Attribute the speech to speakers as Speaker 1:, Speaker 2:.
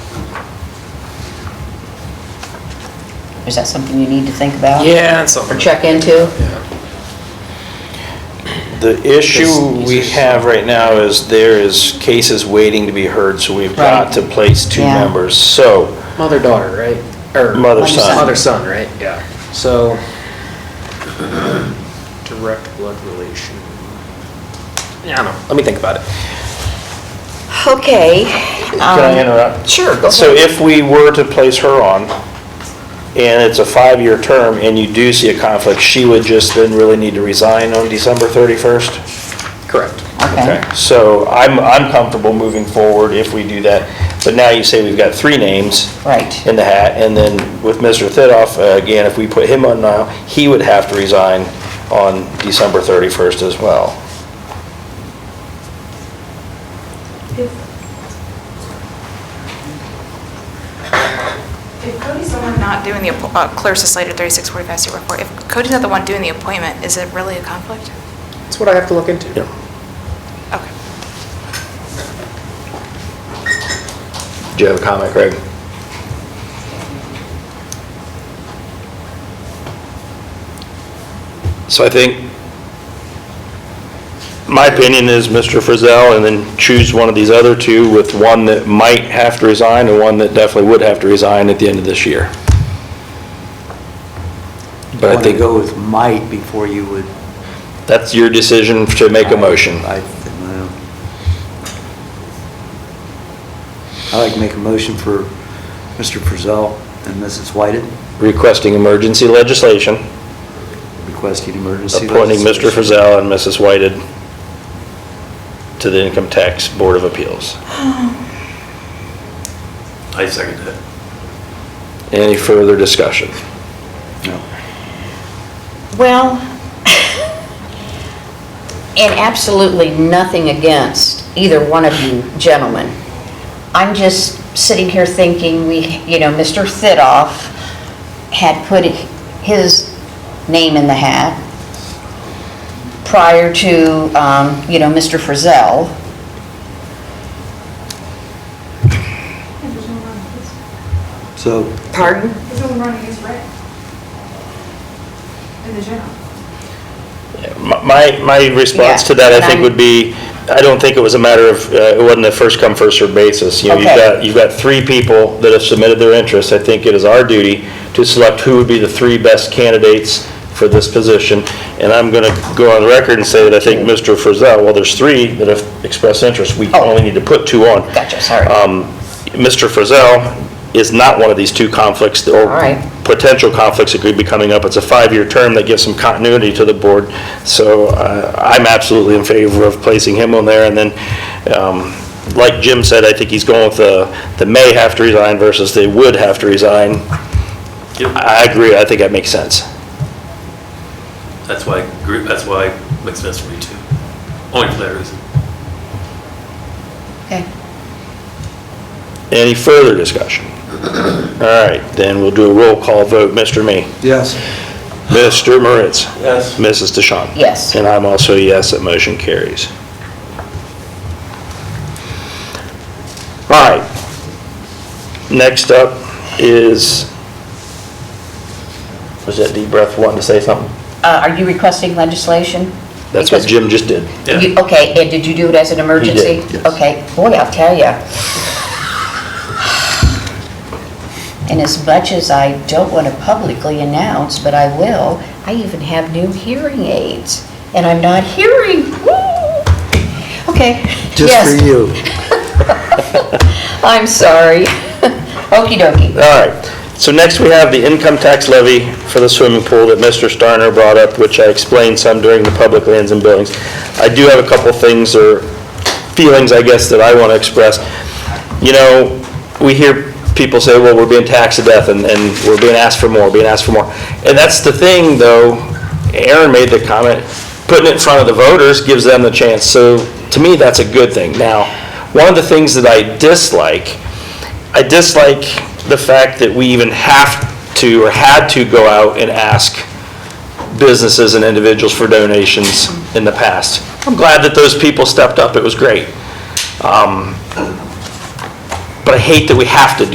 Speaker 1: Is that something you need to think about?
Speaker 2: Yeah, and
Speaker 1: Or
Speaker 2: something.
Speaker 1: check into?
Speaker 2: Yeah.
Speaker 3: The issue we have right now is there is cases waiting to be heard, so we've got
Speaker 1: Right.
Speaker 3: to place two
Speaker 1: Yeah.
Speaker 3: members. So,
Speaker 2: Mother, daughter, right? Or
Speaker 3: Mother, son.
Speaker 2: Mother, son, right? Yeah. So, direct blood relation. Yeah, I don't know. Let me think about it.
Speaker 1: Okay.
Speaker 3: can
Speaker 1: Um,
Speaker 3: I interrupt?
Speaker 2: Sure, go
Speaker 3: So if we were to place her on, and it's a five-year term, and you do see a conflict, she would just then really need to resign on December 31st?
Speaker 2: Correct.
Speaker 1: Okay.
Speaker 3: So I'm, I'm comfortable moving forward if we do that. But now you say we've got three names.
Speaker 1: Right.
Speaker 3: in the hat, and then with Mr. Thidoff, uh, again, if we put him on now, he would have to resign on December 31st as well.
Speaker 4: If if Cody's the one not doing the, appo- uh, Clear Society 3645 State Report, if Cody's not the one doing the appointment, is it really a conflict?
Speaker 2: That's what I have to look into.
Speaker 4: Okay.
Speaker 3: Do you have a comment, Craig? So I think, my opinion is Mr. Frizell, and then choose one of these other two with one that might have to resign and one that definitely would have to resign at the end of this year. But I
Speaker 5: want to
Speaker 3: think
Speaker 5: go with might before you would.
Speaker 3: that's your decision to make a motion.
Speaker 5: I, well. I'd like to make a motion for Mr. Frizell and Mrs. Whited
Speaker 3: requesting emergency legislation,
Speaker 5: requesting emergency.
Speaker 3: appointing Mr.
Speaker 5: legislation.
Speaker 3: Frizell and Mrs. Whited to the Income Tax Board of Appeals.
Speaker 6: I second that.
Speaker 3: Any further discussion?
Speaker 5: No.
Speaker 1: Well, and absolutely nothing against either one of you gentlemen. I'm just sitting here thinking, we, you know, Mr. Thidoff had put his name in the hat prior to, um, you know, Mr. Frizell.
Speaker 5: So,
Speaker 1: Pardon?
Speaker 7: It's only running its rent. In the general.
Speaker 3: My, my response
Speaker 1: Yeah,
Speaker 3: to that,
Speaker 1: and
Speaker 3: I think,
Speaker 1: I'm-
Speaker 3: would be, I don't think it was a matter of, uh, it wasn't a first come, first served basis. You know, you've
Speaker 1: Okay.
Speaker 3: got, you've got three people that have submitted their interest. I think it is our duty to select who would be the three best candidates for this position. And I'm going to go on the record and say that I think Mr. Frizell, well, there's three that have expressed interest. We
Speaker 1: Oh.
Speaker 3: only need to put two on.
Speaker 1: Gotcha, sorry.
Speaker 3: Um, Mr. Frizell is not one of these two conflicts or
Speaker 1: All right.
Speaker 3: potential conflicts that could be coming up. It's a five-year term that gives some continuity to the board. So uh, I'm absolutely in favor of placing him on there. And then, um, like Jim said, I think he's going with the, the may have to resign versus they would have to resign.
Speaker 6: Yep,
Speaker 3: I agree. I think that makes sense.
Speaker 6: that's why, I agree- that's why it makes sense for me too. Only for that reason.
Speaker 1: Okay.
Speaker 3: Any further discussion? All right, then we'll do a roll call vote. Mr. May.
Speaker 5: yes.
Speaker 3: Mr. Moritz.
Speaker 6: Yes.
Speaker 3: Mrs. DeShawn?
Speaker 1: Yes.
Speaker 3: And I'm also a yes, that motion carries. All right. Next up is, was that deep breath wanting to say something?
Speaker 1: Uh, Are you requesting legislation?
Speaker 3: That's what
Speaker 1: Because-
Speaker 3: Jim just did.
Speaker 6: Yeah.
Speaker 1: You- Okay, and did you do it as an emergency?
Speaker 3: yes.
Speaker 1: Okay, boy, I'll tell ya. And as much as I don't want to publicly announce, but I will, I even have new hearing aids, and I'm not hearing. Woo! Okay. Yes,
Speaker 5: Just for you.
Speaker 1: I'm sorry. Okey dokey.
Speaker 3: All right. So next we have the income tax levy for the swimming pool that Mr. Starner brought up, which I explained some during the public lands and buildings. I do have a couple things or feelings, I guess, that I want to express. You know, we hear people say, well, we're being taxed to death and, and we're being asked for more, being asked for more. And that's the thing, though, Aaron made the comment, putting it in front of the voters gives them the chance. So to me, that's a good thing. Now, one of the things that I dislike I dislike the fact that we even have to or had to go out and ask businesses and individuals for donations in the past. I'm glad that those people stepped up, it was great. Um, But I hate that we have to do